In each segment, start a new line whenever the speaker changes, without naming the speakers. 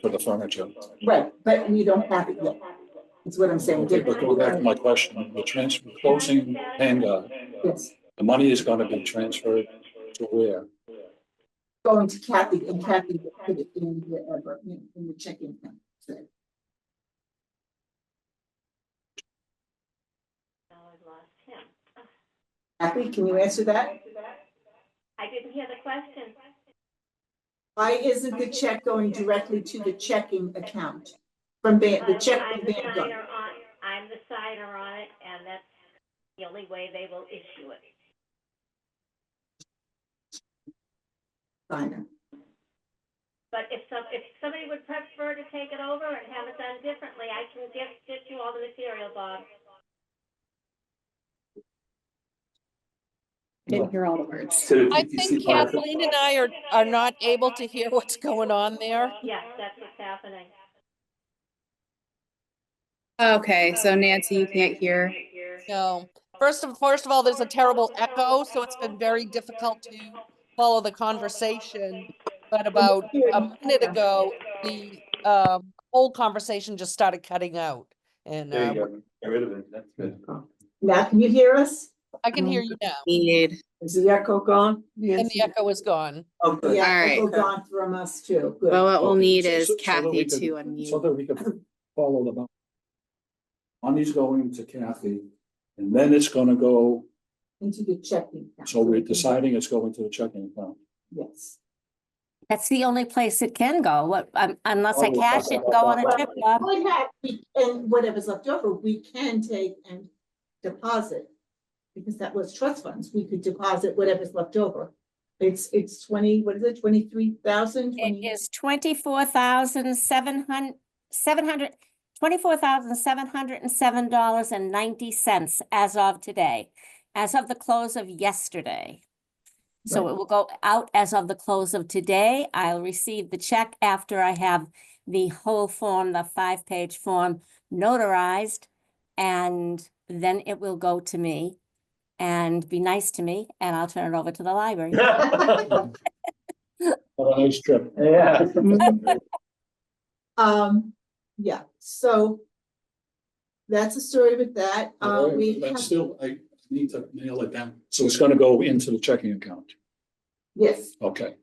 for the furniture.
Right, but we don't have it yet. That's what I'm saying.
Okay, but go back to my question, the transfer, closing hangar,
Yes,
the money is gonna be transferred to where?
going to Kathy and Kathy will put it in wherever, in in the checking. account. So,
Now I've lost him.
Kathy, can you answer that?
I didn't hear the question.
Why isn't the check going directly to the checking account? From Van, the check
I'm
from
the
Vanguard.
signer on, I'm the signer on it, and that's the only way they will issue it.
Signer.
But if some, if somebody would prefer to take it over and have it done differently, I can get, get you all the material, Bob.
Didn't hear all the words.
I think Kathleen and I are, are not able to hear what's going on there.
Yes, that's what's happening.
Okay, so Nancy, you can't hear.
No. First of, first of all, there's a terrible echo, so it's been very difficult to follow the conversation. But about a minute ago, the, um, whole conversation just started cutting out. And,
There you
um,
go. Get rid of it. That's good.
Now, can you hear us?
I can hear you now,
Need.
Is the echo gone?
and the echo is gone.
Okay. Yeah,
All right.
echo gone from us too. Good.
Well, uh, what we'll
Okay,
need
so-
is
so- so that we
Kathy
could-
to
So
unmute.
that we can follow the money. Money's going to Kathy, and then it's gonna go,
Into the checking. account.
so we're deciding it's going to the checking account.
Yes.
That's the only place it can go, what, um, unless I
Oh,
cash it and go on a trip, Bob.
Would have, we- and whatever's left over, we can take and deposit. Because that was trust funds, we could deposit whatever's left over. It's, it's twenty, what is it, twenty-three thousand?
It is twenty-four thousand seven hun- seven hundred, twenty-four thousand seven hundred and seven dollars and ninety cents as of today, as of the close of yesterday. So
Right.
it will go out as of the close of today. I'll receive the check after I have the whole form, the five-page form notarized. And then it will go to me and be nice to me, and I'll turn it over to the library.
What a nice trip.
Yeah.
Mm-hmm.
Um, yeah, so. That's the story with that, uh,
Um,
we
But
have,
still, I need to nail it down. So it's gonna go into the checking account.
yes,
Okay,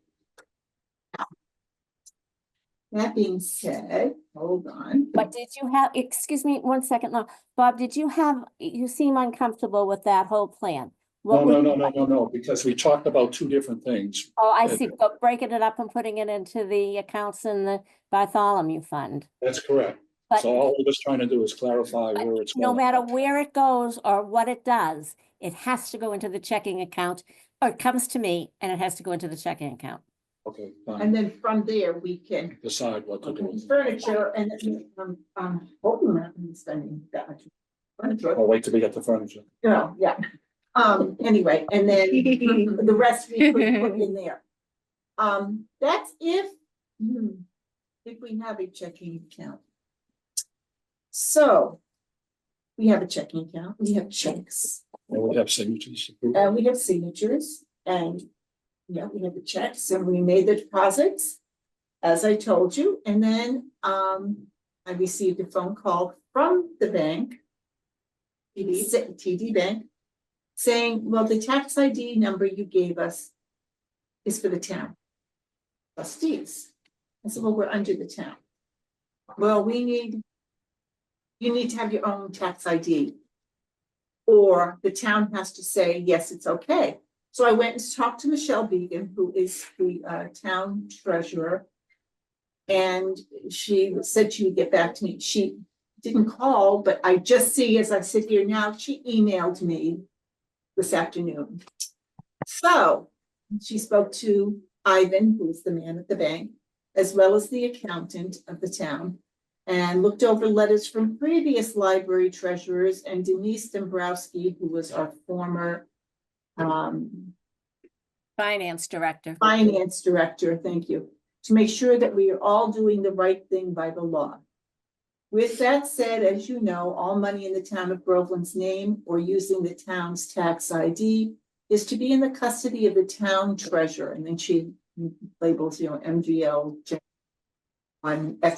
that being said, hold on.
But did you have, excuse me, one second, Lo- Bob, did you have, you seem uncomfortable with that whole plan?
no,
What
no,
would-
no, no, no, no, because we talked about two different things.
Oh, I see, but breaking it up and putting it into the accounts in the Bartholomew Fund.
That's correct.
But
So all we're just trying to do is clarify where it's.
no
going.
matter where it goes or what it does, it has to go into the checking account. Or it comes to me and it has to go into the checking account.
Okay, fine,
And then from there, we can
decide what to do.
furniture and, um, um, hopefully we're not gonna be spending that much. Furniture,
I'll wait till we get the furniture.
No, yeah, um, anyway, and then the rest we could put in there. Um, that's if, hmm, if we have a checking account. So, we have a checking account, we have checks,
And we have signatures.
and we have signatures, and, yeah, we have the checks, and we made the deposits, as I told you, and then, um, I received a phone call from the bank TD, sa- TD Bank, saying, well, the tax ID number you gave us is for the town trustees. I said, well, we're under the town. Well, we need, you need to have your own tax ID. Or the town has to say, yes, it's okay. So I went and talked to Michelle Beegan, who is the uh, town treasurer. And she said she would get back to me. She didn't call, but I just see as I sit here now, she emailed me this afternoon. So she spoke to Ivan, who is the man at the bank, as well as the accountant of the town, and looked over letters from previous library treasurers and Denise Dombrowski, who was our former um,
Finance director.
finance director, thank you, to make sure that we are all doing the right thing by the law. With that said, as you know, all money in the town of Groveland's name or using the town's tax ID is to be in the custody of the town treasurer, and then she labels, you know, MGL, on X